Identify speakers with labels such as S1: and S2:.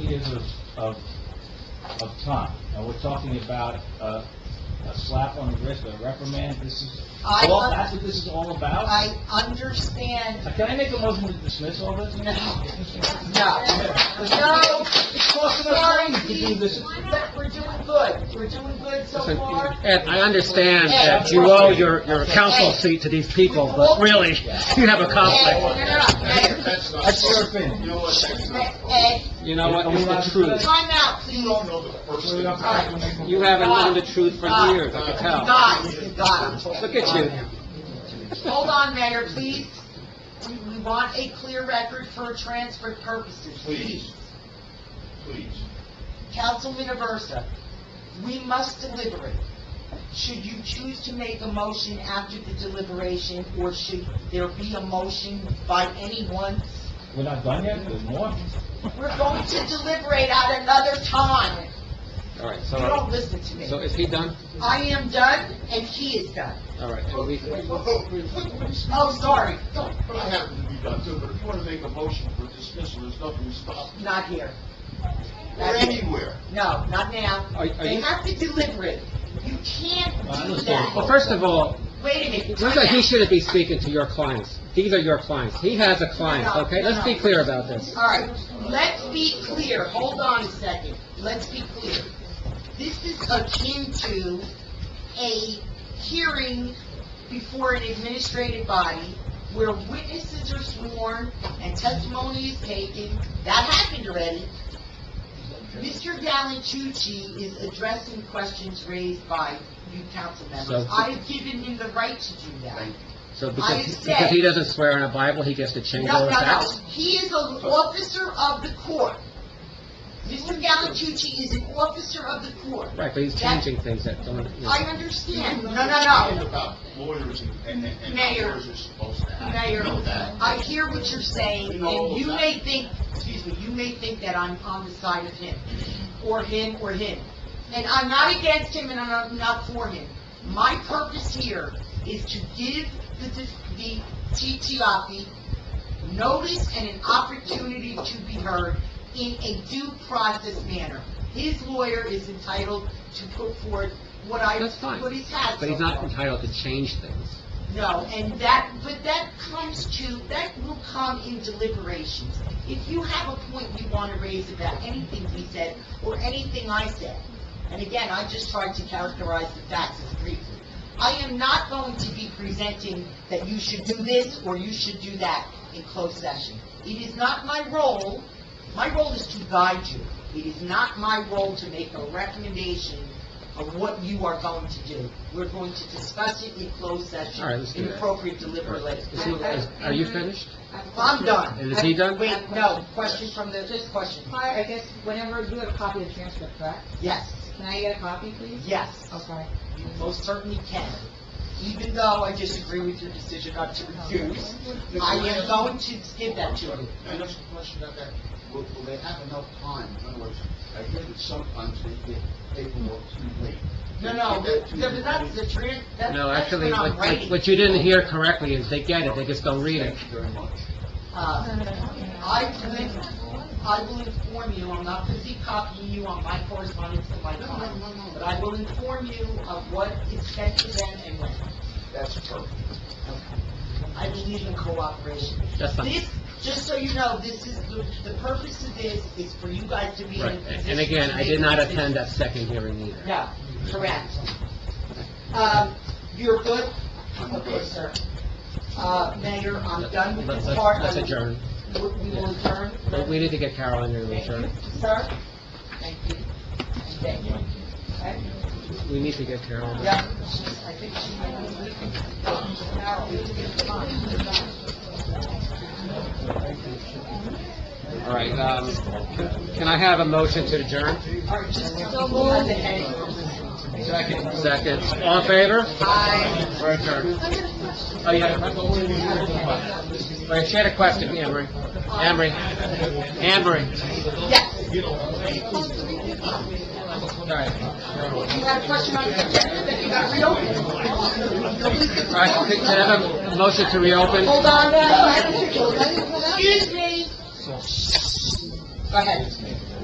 S1: periods of, of, of time. And we're talking about a, a slap on the wrist, a reprimand, this is,
S2: I-
S1: all, that's what this is all about?
S2: I understand,
S1: Uh, Can I make a motion to dismiss all this?
S2: no, no, no,
S1: It's costing us
S2: sorry,
S1: money to do this.
S2: Steve, but we're doing good, we're doing good so far.
S3: Ed, I understand
S2: Ed,
S3: that you owe your, your council seat to these people, but really, you have a conflict.
S2: Ed, Ed,
S4: That's not...
S1: That's your opinion.
S4: You know what, that's not...
S2: Ed,
S3: You know what, it's the truth.
S2: time out,
S4: You
S2: please.
S4: don't know the first thing.
S2: All right.
S3: You haven't known the truth for
S2: God.
S3: years, I can tell.
S2: God, you got it.
S3: Look at you.
S2: Hold on, Mayor, please. We, we want a clear record for transfer purposes,
S4: Please,
S2: please.
S4: please.
S2: Councilman Aversa, we must deliberate. Should you choose to make a motion after the deliberation, or should there be a motion by anyone?
S1: We're not done yet, there's more.
S2: We're going to deliberate at another time.
S3: All right,
S2: You
S3: so,
S2: don't listen to me.
S3: so is he done?
S2: I am done, and he is done.
S3: All right, and we,
S2: Oh, sorry,
S4: But I happen to be done too, but if you want to make a motion for dismissal, there's nothing to stop you.
S2: not here.
S4: Or anywhere.
S2: No, not now.
S3: Are- are
S2: They
S3: you-
S2: have to deliberate. You can't
S1: I
S2: do
S1: understand.
S3: well,
S2: that.
S3: first of all,
S2: Wait a minute.
S3: Looks like he shouldn't be speaking to your clients. These are your clients. He has a client, okay? Let's be clear about this.
S2: All right, let's be clear, hold on a second, let's be clear. This is akin to a hearing before an administrative body where witnesses are sworn and testimony is taken, that happened already. Mr. Gallantucci is addressing questions raised by you council members.
S3: So-
S2: I've given him the right to do that.
S3: So
S2: I
S3: because,
S2: said-
S3: because he doesn't swear in a Bible, he gets to change all
S2: No,
S3: his
S2: no, no,
S3: acts?
S2: he is an officer of the court. Mr. Gallantucci is an officer of the court.
S3: Right, but he's changing things that don't, you know.
S2: I understand, no, no, no,
S4: About lawyers and- and, and
S2: Mayor.
S4: lawyers are supposed to act.
S2: Mayor,
S4: You know that.
S2: I hear what you're saying, and you may think, excuse me, you may think that I'm on the side of him, or him, or him. And I'm not against him, and I'm not for him. My purpose here is to give the, the TTIP notice and an opportunity to be heard in a due process manner. His lawyer is entitled to put forth what I,
S3: That's fine.
S2: what he's had so
S3: But he's not
S2: far.
S3: entitled to change things.
S2: No, and that, but that comes to, that will come in deliberations. If you have a point you want to raise about anything we said, or anything I said, and again, I just tried to characterize the facts as briefly. I am not going to be presenting that you should do this or you should do that in closed session. It is not my role, my role is to guide you. It is not my role to make a recommendation of what you are going to do. We're going to discuss it in closed session.
S3: All right, let's do
S2: in
S3: that.
S2: Appropriate deliberation.
S3: Is he- is- Are you finished?
S2: I'm done.
S3: And is he done?
S2: Wait, no, question from the, this question.
S5: I I guess whenever you have a copy of the transcript, correct?
S2: Yes,
S5: Can I get a copy, please?
S2: yes.
S5: Oh, sorry.
S2: You most certainly can. Even though I disagree with your decision not to refuse, I am going to give that to you.
S4: And there's a question about that, will, will they have enough time? In other words, I hear that sometimes they get paperwork too late.
S2: No, no, th- th- that's the tran, that-
S3: No,
S2: that's
S3: actually,
S2: what
S3: what,
S2: I'm
S3: what-
S2: writing.
S3: what you didn't hear correctly is they get it, they just don't read it.
S4: Thank you very much.
S2: Uh, I will, I will inform you, I'm not busy copying you on my correspondence to my client, but I will inform you of what is sent to them and when.
S4: That's perfect.
S2: I believe in cooperation.
S3: That's fine.
S2: This, just so you know, this is, the the purpose of this is for you guys to be in a
S3: Right,
S2: position.
S3: and again,
S2: to
S3: I
S2: make
S3: did
S2: a
S3: not
S2: decision.
S3: attend that second hearing either.
S2: No, correct. Um, you're good?
S4: I'm
S2: Okay,
S4: good.
S2: sir. Uh, Mayor, I'm done with
S3: Let's-
S2: this
S3: let's-
S2: part.
S3: Let's
S2: I will-
S3: adjourn.
S2: We we will adjourn.
S3: But we need to get Carol in here to
S2: Thank you,
S3: adjourn.
S2: Sir? Thank you. Thank you. Okay?
S3: We need to get Carol. in.
S2: Yeah, I think she might be leaving. Carol, we need to get her on.
S3: All right, um, can- can I have a motion to adjourn?
S2: All right, just go move the heading.
S3: Second. Second. All in favor?
S2: Aye.
S3: We're adjourned. Oh, yeah. Wait, she had a question, Emery. Emery. Emery.
S2: Yes.
S3: All right.
S2: You had a question on the agenda that you got reopened. Nobody's
S3: All right, can I have a motion to reopen?
S2: Hold on, no, I don't think so. Excuse me. Go ahead.